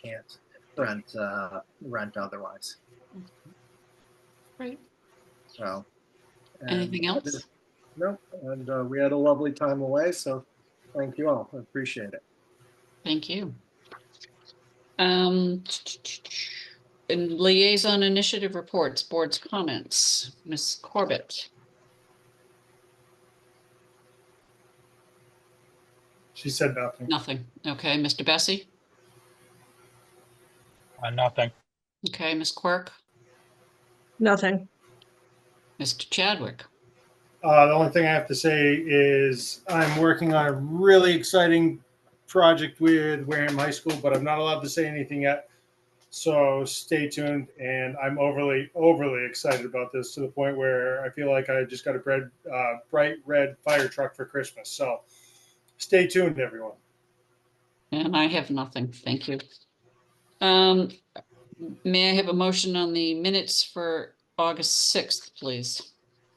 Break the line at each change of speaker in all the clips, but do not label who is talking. can't rent uh, rent otherwise.
Right.
So. and-
Anything else?
Nope. And uh, we had a lovely time away. So thank you all. I appreciate it.
Thank you. Um, and liaison initiative reports, board's comments, Ms. Corbett.
She said nothing.
Nothing. Okay, Mr. Bessie?
Uh, nothing.
Okay, Ms. Quirk?
Nothing.
Mr. Chadwick?
Uh, the only thing I have to say is I'm working on a really exciting project with Wareham High School, but I'm not allowed to say anything yet. So stay tuned. And I'm overly, overly excited about this to the point where I feel like I just got a red, uh, bright red fire truck for Christmas. So stay tuned, everyone.
And I have nothing. Thank you. Um, may I have a motion on the minutes for August 6th, please?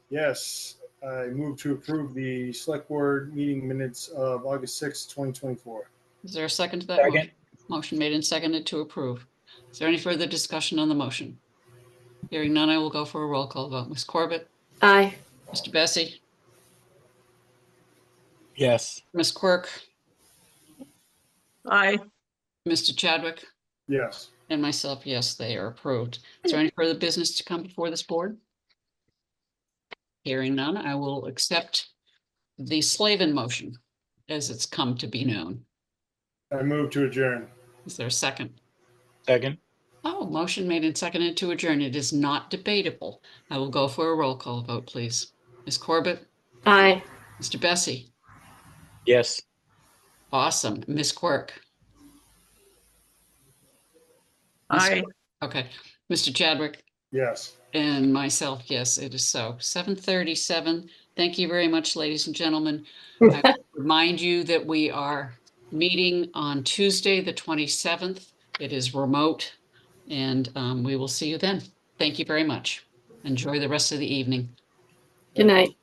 Yes, I move to approve the select board meeting minutes of August 6th, 2024.
Is there a second to that?
Second.
motion? Motion made and seconded to approve. Is there any further discussion on the motion? Hearing none, I will go for a roll call vote. Ms. Corbett?
Aye.
Mr. Bessie?
Yes.
Ms. Quirk?
Aye.
Mr. Chadwick?
Yes.
And myself, yes, they are approved. Is there any further business to come before this board? Hearing none, I will accept the Slavin motion as it's come to be known.
I move to adjourn.
Is there a second?
Second.
Oh, motion made and seconded to adjourn. It is not debatable. I will go for a roll call vote, please. Ms. Corbett,
Aye.
Mr. Bessie,
Yes.
awesome. Ms. Quirk,
Aye.
okay. Mr. Chadwick,
Yes.
And myself, yes, it is so. Seven thirty-seven. Thank you very much, ladies and gentlemen. I Remind you that we are meeting on Tuesday, the twenty-seventh. It is remote. And um, we will see you then. Thank you very much. Enjoy the rest of the evening.
Good night.